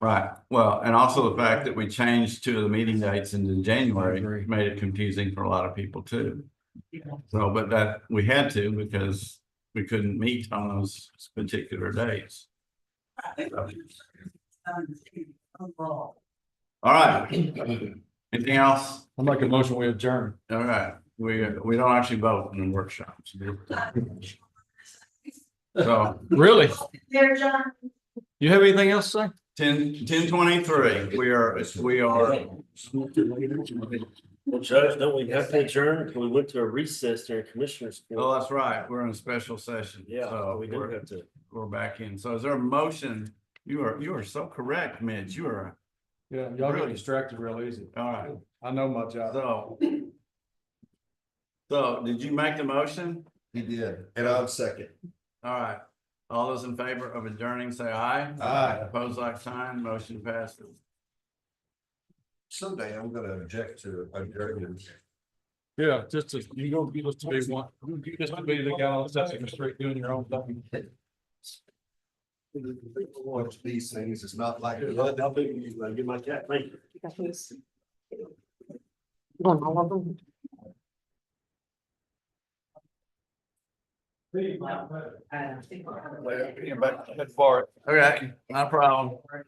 Right, well, and also the fact that we changed two of the meeting dates into I agree. January made it confusing for a lot of people too. So, but that, we had to because we couldn't meet on those particular days. um, Overall. All right. Anything else? I'll make a motion, we adjourn. All right, we, we don't actually vote in workshops. So Really? There, John. You have anything else to say? ten, ten twenty-three, we are, we are, Well, Judge, don't we have to adjourn? We went to a recess during commissioners. Court. oh, that's right, we're in a special session. Yeah, So we do we're- have to. We're back in. So is there a motion? You are, you are so correct, Mitch. You are, Yeah, y'all get Really? distracted real easy. all right, I know my job. so. So did you make the motion? He did, and I'm second. All right. All those in favor of adjourning, say aye. Aye. Opposed, like sign, motion passes. Someday I'm gonna object to a jury. Yeah, just as, you don't be just to be one, just to be the guy on Sesame Street doing your own thing. Watch these things, it's not like. I'll be- I'll get my cat, thank you. On all of them. Well, yeah, but- Okay, no problem.